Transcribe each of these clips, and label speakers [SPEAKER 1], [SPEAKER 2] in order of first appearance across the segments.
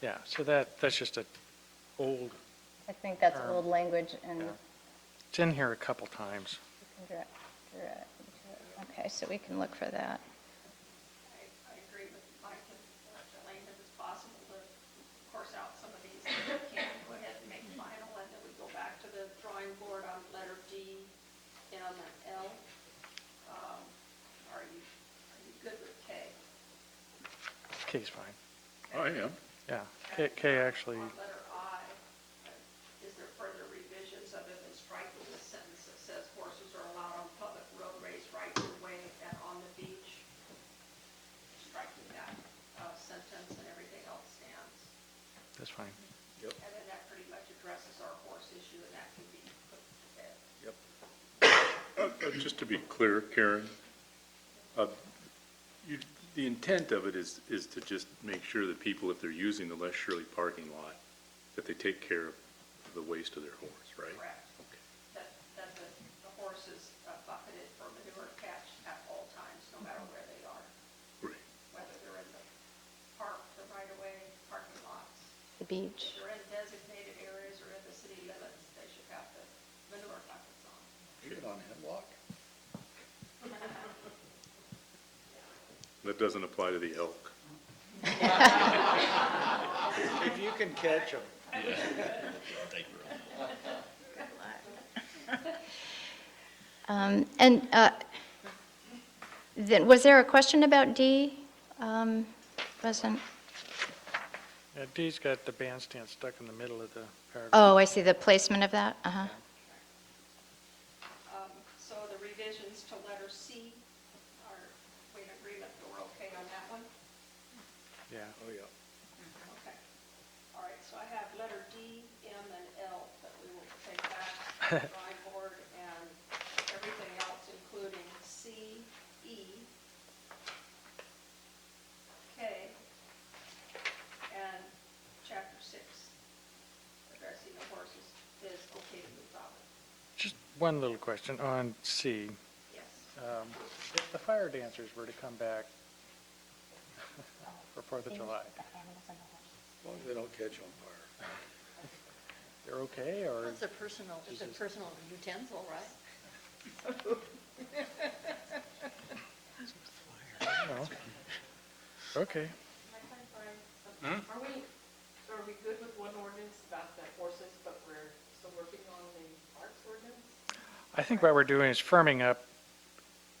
[SPEAKER 1] Yeah, so that, that's just a old,
[SPEAKER 2] I think that's
[SPEAKER 1] Term.
[SPEAKER 2] old language and
[SPEAKER 1] Yeah.
[SPEAKER 2] we
[SPEAKER 1] it's in here a couple times.
[SPEAKER 2] can direct, direct, direct- okay, so we can look for that.
[SPEAKER 3] I, I agree with Mike and Dr. Lane that it's possible to course out some of these that we can go ahead and make final, and then we go back to the drawing board on letter D, M, and L. Um, Are you, are you good with K?
[SPEAKER 1] K's fine,
[SPEAKER 4] I am.
[SPEAKER 1] yeah. K, K actually,
[SPEAKER 3] On letter I, uh, is there further revisions other than striking the sentence that says horses are allowed on public roadways right of way and on the beach? Striking that uh, sentence and everything else stands.
[SPEAKER 1] that's fine.
[SPEAKER 3] And then that pretty much addresses our horse issue, and that can be put to bed.
[SPEAKER 4] Uh, uh, Just to be clear, Karen, uh, you, the intent of it is, is to just make sure that people, if they're using the Les Shirley parking lot, that they take care of the waste of their horse, right?
[SPEAKER 3] Correct. That, that the, the horse is uh, bucketed for manure catch at all times, no matter where they are,
[SPEAKER 4] Right.
[SPEAKER 3] whether they're in the park, the right-of-way, parking lots.
[SPEAKER 2] The beach.
[SPEAKER 3] If they're in designated areas or in the city limits, they should have the manure buckets on.
[SPEAKER 5] Even on Hemlock?
[SPEAKER 4] That doesn't apply to the elk.
[SPEAKER 5] If you can catch them.
[SPEAKER 2] Um, And uh, then, was there a question about D? Um, Wasn't,
[SPEAKER 1] Yeah, D's got the bandstand stuck in the middle of the paragraph.
[SPEAKER 2] oh, I see the placement of that, uh-huh.
[SPEAKER 3] Um, So the revisions to letter C are, we in agreement, that we're okay on that one?
[SPEAKER 1] Yeah,
[SPEAKER 5] Oh, yeah.
[SPEAKER 3] Okay. All right, so I have letter D, M, and L that we will take back to the drawing board and everything else, including C, E, K, and chapter six, addressing the horses is okay to move forward.
[SPEAKER 1] just one little question on C.
[SPEAKER 3] Yes.
[SPEAKER 1] Um, If the fire dancers were to come back for Fourth of July,
[SPEAKER 5] As long as they don't catch on fire.
[SPEAKER 1] they're okay, or?
[SPEAKER 6] It's a personal, it's a personal utensil, right?
[SPEAKER 1] No. Okay.
[SPEAKER 7] Are we, are we good with one ordinance about the horses, but we're still working on the parks ordinance?
[SPEAKER 1] I think what we're doing is firming up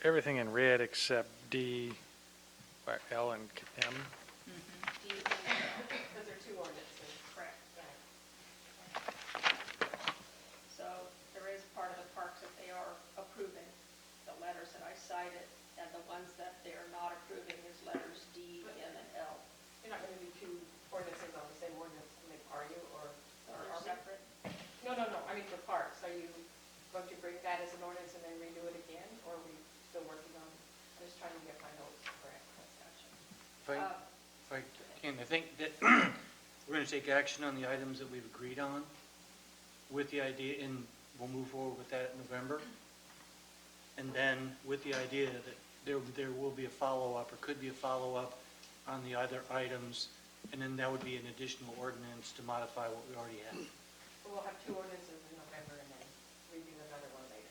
[SPEAKER 1] everything in red except D, or L, and M.
[SPEAKER 3] D, M, and L.
[SPEAKER 7] Because there are two ordinances.
[SPEAKER 3] Correct. So there is part of the parks that they are approving, the letters that I cited, and the ones that they are not approving is letters D, M, and L.
[SPEAKER 7] You're not going to do two ordinances on the same ordinance, I mean, are you, or?
[SPEAKER 3] Or
[SPEAKER 7] or
[SPEAKER 3] are
[SPEAKER 7] are we?
[SPEAKER 3] separate.
[SPEAKER 7] No, no, no, I mean for parks, are you going to bring that as an ordinance and then redo it again, or are we still working on, I'm just trying to get my notes correct.
[SPEAKER 8] If I,
[SPEAKER 3] Uh,
[SPEAKER 8] if I can, I think that we're going to take action on the items that we've agreed on with the idea, and we'll move forward with that in November. And then with the idea that there, there will be a follow-up or could be a follow-up on the other items. And then that would be an additional ordinance to modify what we already have.
[SPEAKER 7] We'll have two ordinances in November and then redo another one later.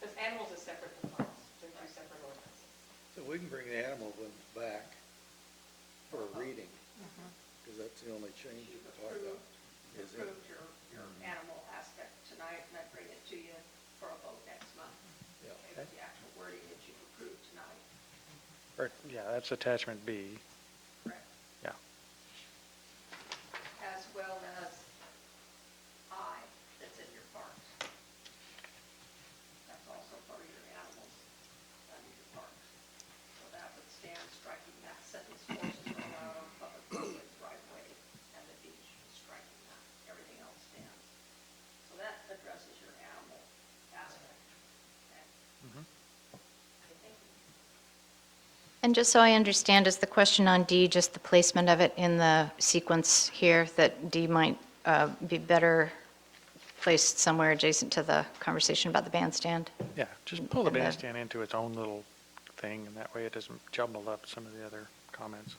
[SPEAKER 7] Because animals is separate from parks, they're two separate ordinances.
[SPEAKER 5] So we can bring the animal ones back for a reading, because that's the only change we can talk about.
[SPEAKER 3] You
[SPEAKER 5] Is it? Mm-hmm.
[SPEAKER 3] approved your, your animal aspect tonight, and I bring it to you for a vote next month.
[SPEAKER 5] Yeah.
[SPEAKER 3] Okay, with The actual wording that you approved tonight.
[SPEAKER 1] Or, yeah, that's attachment B.
[SPEAKER 3] Correct.
[SPEAKER 1] Yeah.
[SPEAKER 3] As well as I that's in your parks. That's also part of your animals under your parks. So that would stand striking that sentence, horses are allowed on public roadways, right of way, and the beach, striking that, everything else stands. So that addresses your animal aspect. Okay? I think
[SPEAKER 2] And just so I understand, is the question on D just the placement of it in the sequence here, that D might uh, be better placed somewhere adjacent to the conversation about the bandstand?
[SPEAKER 1] Yeah, just pull the
[SPEAKER 2] And then-
[SPEAKER 1] bandstand into its own little thing, and that way it doesn't jumble up some of the other comments.